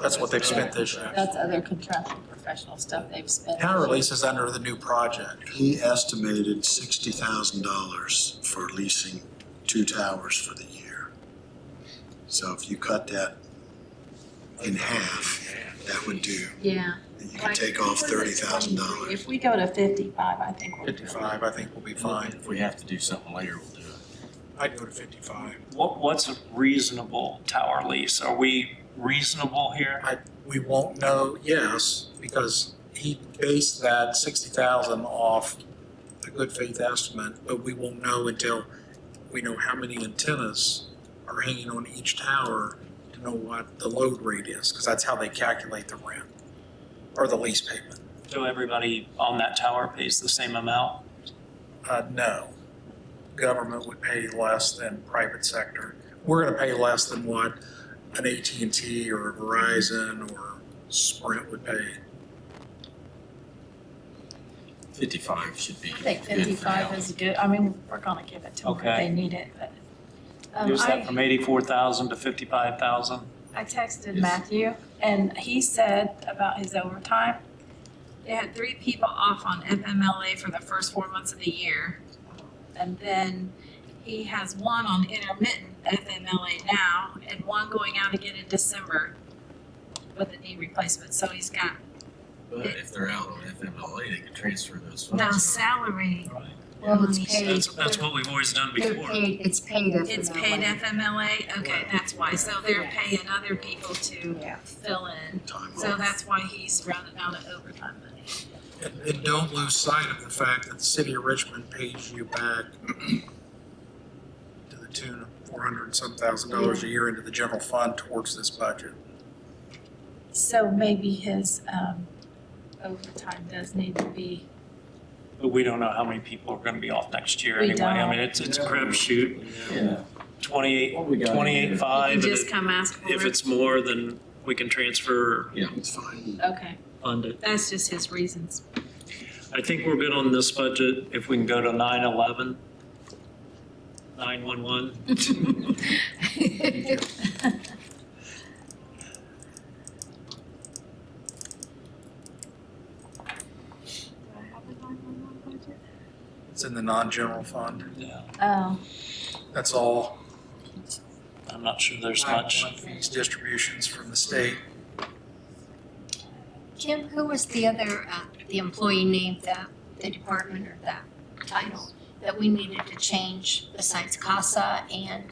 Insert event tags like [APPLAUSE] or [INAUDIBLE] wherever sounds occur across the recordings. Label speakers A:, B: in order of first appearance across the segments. A: That's what they've spent this year.
B: That's other contractual professional stuff they've spent.
A: Town release is under the new project.
C: He estimated sixty thousand dollars for leasing two towers for the year. So if you cut that in half, that would do,
B: Yeah.
C: you could take off thirty thousand dollars.
B: If we go to fifty-five, I think we're. doing it.
A: Fifty-five, I think, will be fine.
D: If we have to do something later, we'll do it.
A: I'd go to fifty-five.
E: What, what's a reasonable tower lease? Are we reasonable here?
A: I, we won't know, yes, because he based that sixty thousand off a good faith estimate, but we won't know until we know how many antennas are hanging on each tower to know what the load rate is, because that's how they calculate the rent or the lease payment.
E: So everybody on that tower pays the same amount?
A: Uh, no, government would pay less than private sector. We're gonna pay less than what an AT&T or Verizon or Sprint would pay.
D: Fifty-five should be.
B: I think
D: good for now.
B: fifty-five is good, I mean, we're gonna give it to them if
E: Okay.
B: they need it, but. um,
E: Is
B: I-
E: that from 84,000 to 55,000?
B: I texted
D: Yes.
B: Matthew and he said about his overtime. They had three people off on FMLA for the first four months of the year. And then he has one on intermittent FMLA now and one going out again in December with a knee replacement. So he's got
D: But if they're out on FMLA, they can transfer those
B: no
D: funds.
B: salary.
F: Well, it's
B: money.
F: paid,
E: That's, that's what we've always done
F: they're
E: before.
F: paid, it's paid FMLA.
B: It's paid FMLA? Okay, that's why. So they're paying other people to fill in.
C: Time
B: So
C: off.
B: that's why he's running out of overtime money.
A: And, and don't lose sight of the fact that the city of Richmond pays you back to the tune of four hundred and some thousand dollars a year into the general fund towards this budget.
B: So maybe his um, overtime does need to be,
E: But we don't know how many people are going to be off next year
B: We
E: anyway. I
B: don't.
E: mean, it's, it's a crapshoot,
D: Yeah.
E: 28,
D: What we got in there?
E: 28.5.
B: you
E: and
B: just
E: Uh, if-
B: come ask for
E: If
B: it?
E: it's more, then we can transfer,
C: It's fine.
B: Okay,
E: fund it.
B: that's just his reasons.
E: I think we're good on this budget if we can go to 911, 911.
A: It's in the non-general fund.
E: Yeah,
B: Oh,
A: That's all.
E: I'm not sure there's much.
A: Fees, distributions from the state.
F: Jim, who was the other, uh, the employee name that, the department or that title that we needed to change besides CASA and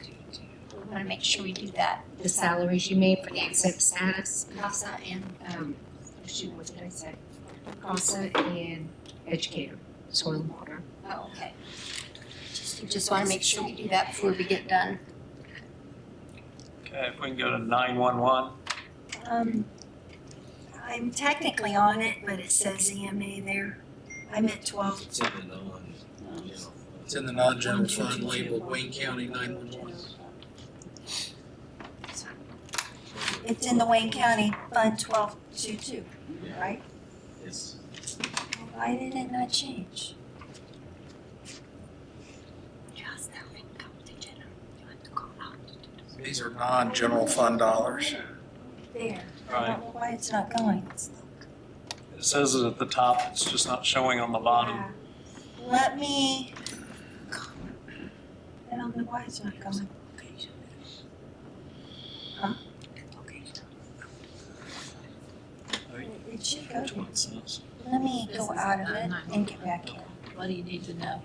F: we want to make sure we do that, [LAUGHS] the salaries you made for the exempt status, CASA and, um, shoot, what did I say?
G: CASA and educator, soil and water.
F: Oh, okay. Just, just want to make sure we do that before we get done.
E: Okay, if we can go to 911.
H: Um, I'm technically on it, but it says EMA there. I meant twelve.
D: It's in the non, you know,
A: It's in the non-general fund labeled Wayne County nine-one-one.
H: It's in the Wayne County Fund twelve two two, right?
D: it's,
H: Why did it not change?
F: Just that we come to dinner. You have to call out.
A: These are non-general fund dollars.
H: There. I
E: Right.
H: don't know why it's not going. It's not-
E: It says it at the top, it's just not showing on the bottom.
H: Yeah. Let me. I don't know why it's not going. Huh? It should go.
D: which one it says?
H: Let me go out of it and get back in.
B: what do you need to know?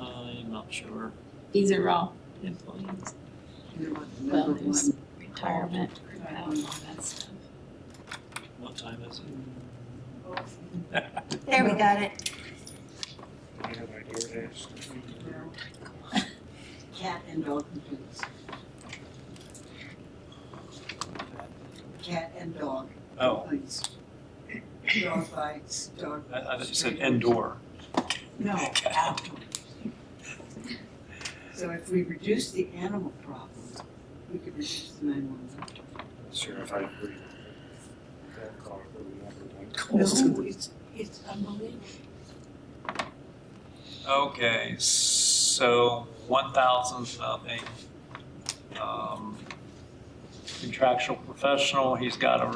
E: I'm not sure.
B: These are all employees, well, there's retirement, all that stuff.
E: What time is it?
H: There, we got it.
G: Cat and dog complaints. Cat and dog
E: Oh,
G: complaints. Dog bites, dog.
E: I, I thought you said indoor.
G: No, outdoor. So if we reduce the animal problem, we could reduce the nine-one-one.
I: Sheriff, I agree. That car for the number one calls.
G: No, it's, it's unbelievable.
E: Okay, so 1,000 something. Um, contractual professional, he's got a